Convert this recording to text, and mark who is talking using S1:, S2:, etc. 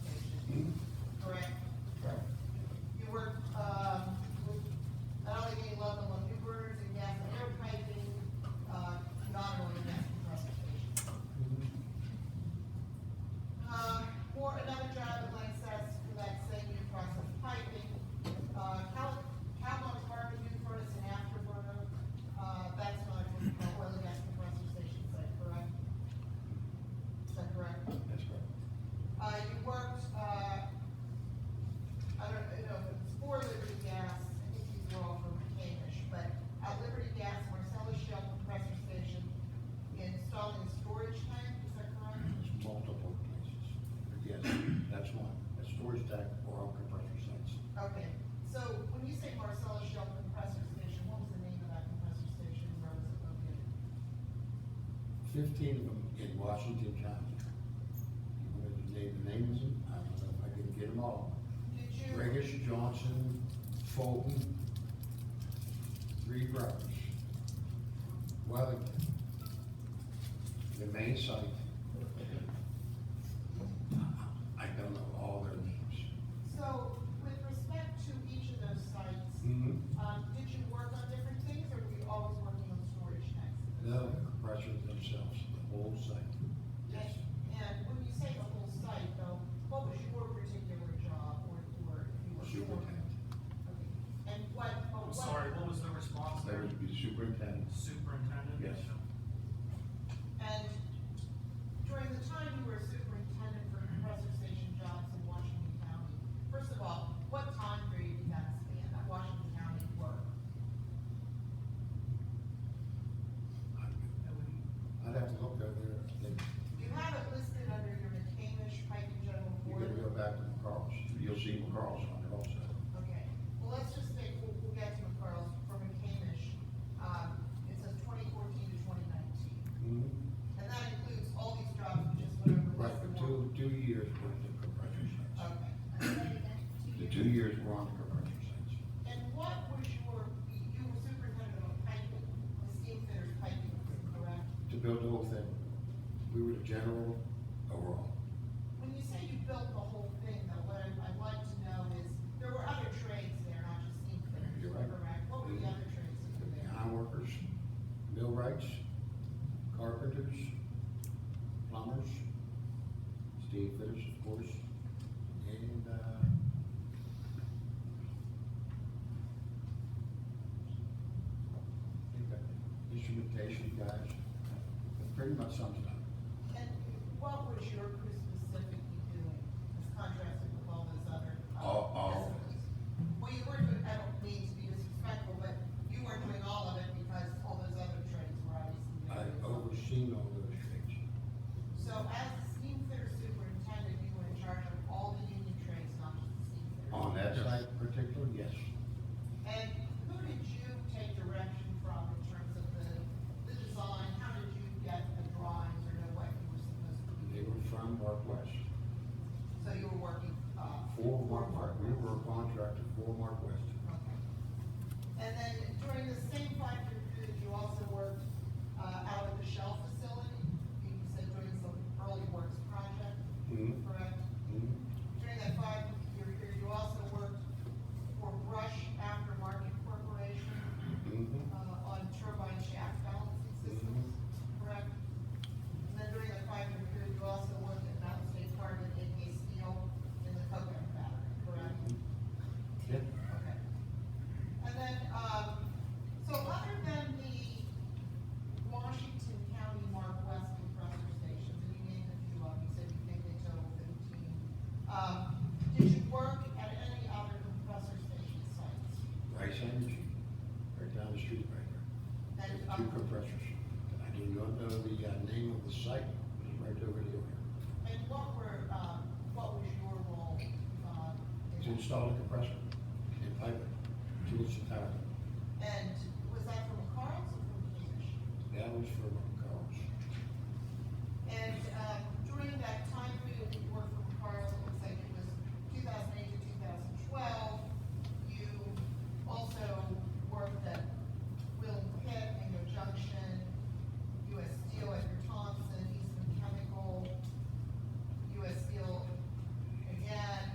S1: um, uh, Uh, uh, uh, Uh,
S2: storage tank for our compressor sites.
S1: Okay, so when you say Marcellus Shell Compressor Station, what was the name of that compressor station, where was it located?
S2: Fifteen of them in Washington County. You wanted to name the names, I don't know if I can get them all.
S1: Did you?
S2: Regis, Johnson, Fulton, Three Brothers, Wellington, the main site. I don't know all their names.
S1: So, with respect to each of those sites,
S2: Mhm.
S1: um, did you work on different things, or were you always working on storage tanks?
S2: No, the compressors themselves, the whole site.
S1: And, and when you say the whole site, though, what was your particular job, or, or if you were?
S2: Superintendent.
S1: Okay. And what, oh,
S3: I'm
S1: what?
S3: sorry, what was the response
S2: There
S3: there?
S2: would be superintendents.
S3: Superintendent?
S2: Yes.
S1: And during the time you were superintendent for compressor station jobs in Washington County, first of all, what time period did that span, that Washington County work?
S2: I'd have to look over there, I think,
S1: You have it listed under your McCamish Pike and General
S2: you gotta go
S1: Board.
S2: back to McCarles, you'll see McCarles on there also.
S1: Okay, well, let's just think, we'll, we'll get to McCarles for McCamish. Um, it says twenty fourteen to twenty nineteen, and that includes all these jobs we just went over. plus
S2: Right, for
S1: the one-
S2: two, two years worth of compressor sites.
S1: Okay.
S2: The two years were on the compressor sites.
S1: And what was your, you were superintendent of piping, the steam fitters piping, correct?
S2: To build the whole thing, we were the general overall.
S1: When you say you built the whole thing, though, what I- I'd like to know is, there were other trades there, not just steam fitters,
S2: You're right.
S1: correct? What were the other trades that were
S2: The
S1: there?
S2: ironworkers, millwrights, carpenters, plumbers, steel fitters, of course, and, uh, instrumentation guys, that pretty much sums it up.
S1: And what was your crew specifically doing, as contrasted with all those other? uh,
S2: All- all of
S1: customers?
S2: it.
S1: Well, you weren't doing, I don't mean to be disrespectful, but you weren't doing all of it because all those other trades were obviously doing
S2: I've
S1: it.
S2: overseen all those things.
S1: So as the steam fitter superintendent, you were in charge of all the union trades, not just the steam fitters?
S2: On that site in particular, yes,
S1: And who did you take direction from in terms of the, the design? How did you get the drawings or know what you were supposed to
S2: they
S1: do?
S2: were from Mark West.
S1: So you were working, uh?
S2: For
S1: for
S2: Mark West, we were a contractor for Mark West.
S1: Okay. And then during the same five-year period, you also worked, uh, out at the Shell facility? You said doing some early works project,
S2: Mhm.
S1: correct?
S2: Mhm.
S1: During that five-year period, you also worked for Brush Aftermarket Corporation
S2: Mhm.
S1: uh, on turbine shaft balancing systems, correct? And then during the five-year period, you also worked at Mountain State Carbon, AK Steel, in the coconut battery, correct?
S2: Yeah.
S1: Okay. And then, um, so other than the Washington County Mark West compressor stations, and you named a few of them, you said you think they total fifteen. Um, did you work at any other compressor station sites?
S2: Rice Energy, right down the street right there.
S1: And,
S2: There's
S1: um,
S2: Two compressors. I do not know the uh, name of the site, but it's right over there.
S1: And what were, um, what was your role, um,
S2: To
S1: in that?
S2: install a compressor and pipe it to its entirety.
S1: And was that from Carl's or from Cambridge?
S2: That was for
S1: um,